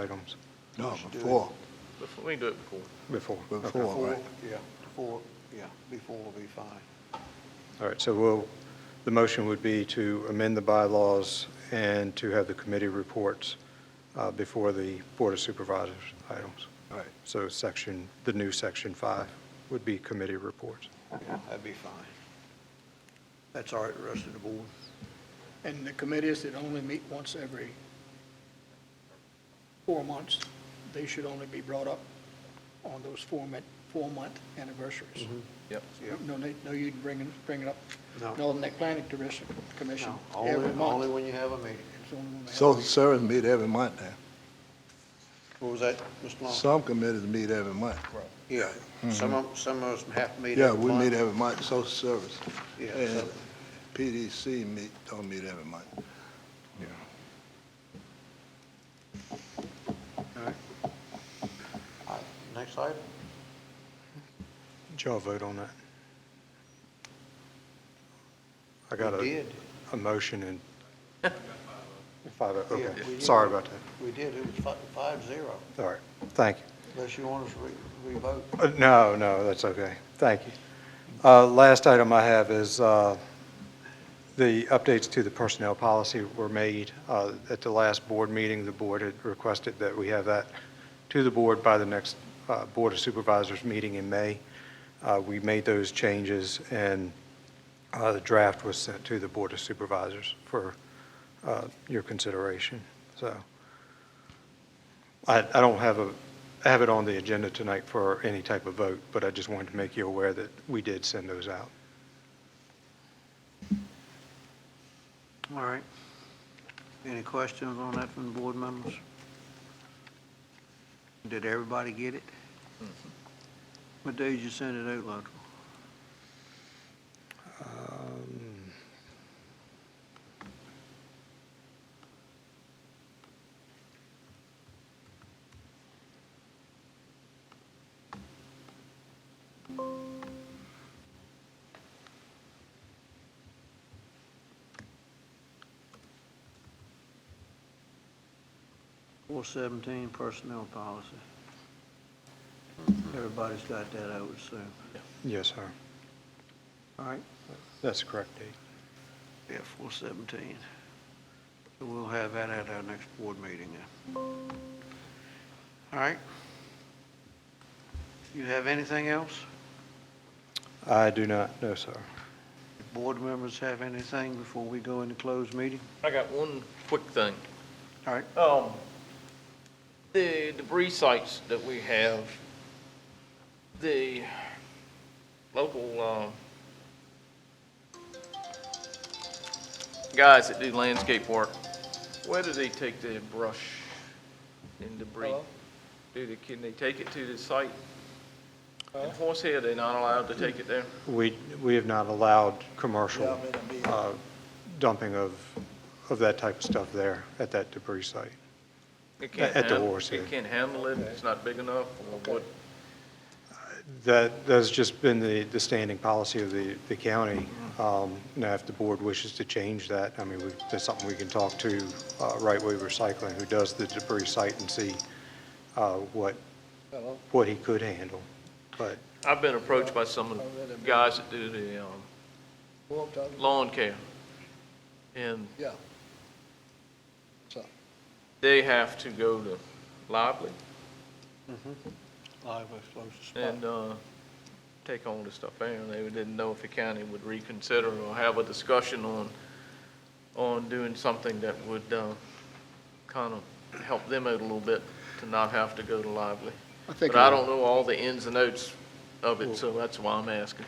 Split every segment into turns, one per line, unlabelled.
items
No, before,
Before, we can do it before.
before. Okay.
before, right?
Yeah, before, yeah, before will be fine.
All right, so we'll, the motion would be to amend the bylaws and to have the committee reports uh, before the Board of Supervisors items.
All right.
So section, the new section five would be committee reports.
That'd be fine. That's all right, the rest of the board. And the committees that only meet once every four months, they should only be brought up on those four-month, four-month anniversaries.
Mm-hmm. Yep.
No, need- no, you'd bring it, bring it up,
No.
Northern Atlantic Commission, Commission
No,
every
Only, only
month.
when you have a meeting.
It's only when they have-
Social service meet every month now.
What was that, Mr. Long?
Some committees meet every month.
Yeah, some of, some of us have to meet
Mm-hmm. Yeah,
every
we meet
month.
every month, social service.
Yeah,
And
so-
PDC meet, don't meet every month.
All right, Next item,
Did y'all vote on that? I got
we
a,
did,
a motion and. Five, oh,
Yeah, we
okay.
did.
Sorry about that.
we did, it was fi- five zero,
All right, thank you.
unless you want us to re- revote.
Uh, No, no, that's okay. Thank you. Uh, Last item I have is uh, the updates to the personnel policy were made. uh, At the last board meeting, the board had requested that we have that to the board by the next uh, Board of Supervisors meeting in May. Uh, We made those changes, and uh, the draft was sent to the Board of Supervisors for uh, your consideration. So I, I don't have a, I have it on the agenda tonight for any type of vote, but I just wanted to make you aware that we did send those out.
All right. Any questions on that from the board members? Did everybody get it?
Mm-hmm.
What day did you send it out, Luttrell?
Um,
Four seventeen personnel policy. Everybody's got that, I would assume.
Yes, sir.
All right.
That's the correct date.
Yeah, four seventeen. We'll have that at our next board meeting then. All right. You have anything else?
I do not know, sir.
Board members have anything before we go into closed meeting?
I got one quick thing.
All right.
Um, the debris sites that we have, the local, um, guys that do landscape work, where do they take the brush and debris? Do they, can they take it to the site? In Horsehead, they're not allowed to take it there?
We, we have not allowed commercial uh, dumping of, of that type of stuff there at that debris site.
It can't
At the
handle-
Horsehead.
It can't handle it, it's not big enough, or what?
That, that's just been the, the standing policy of the, the county. Um, Now, if the board wishes to change that, I mean, we- that's something we can talk to uh, Right Way Recycling, who does the debris site, and see uh, what, what he could handle. But
I've been approached by some of the guys that do the um, lawn care, and
Yeah.
they have to go to Lively
Live was closed spot.
and uh, take on the stuff there, and they didn't know if the county would reconsider or have a discussion on, on doing something that would kind of help them out a little bit to not have to go to Lively.
I think,
But I don't know all the ins and outs of it, so that's why I'm asking.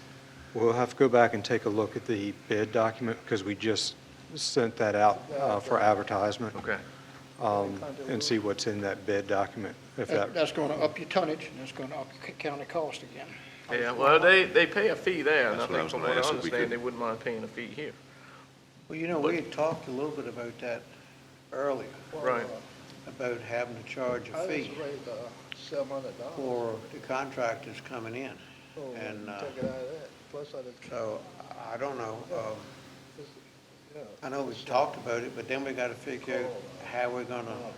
we'll have to go back and take a look at the bid document, because we just sent that out uh, for advertisement,
Okay.
um, and see what's in that bid document, if
that-
that,
that's going to up your tonnage, and that's going to up your county cost again.
Yeah, well, they, they pay a fee there, and I
That's what I
think
was
from
gonna
what
ask,
I
if we
understand,
could-
they wouldn't mind paying a fee here.
Well, you know, we had talked a little bit about that earlier,
Right.
about having to charge a fee
uh, seven hundred dollars.
for the contractors coming in.
Oh,
And uh,
Take it out of that, plus out of,
so, I don't know, um,
yeah.
I know we've talked about it, but then we got to figure out how we're going to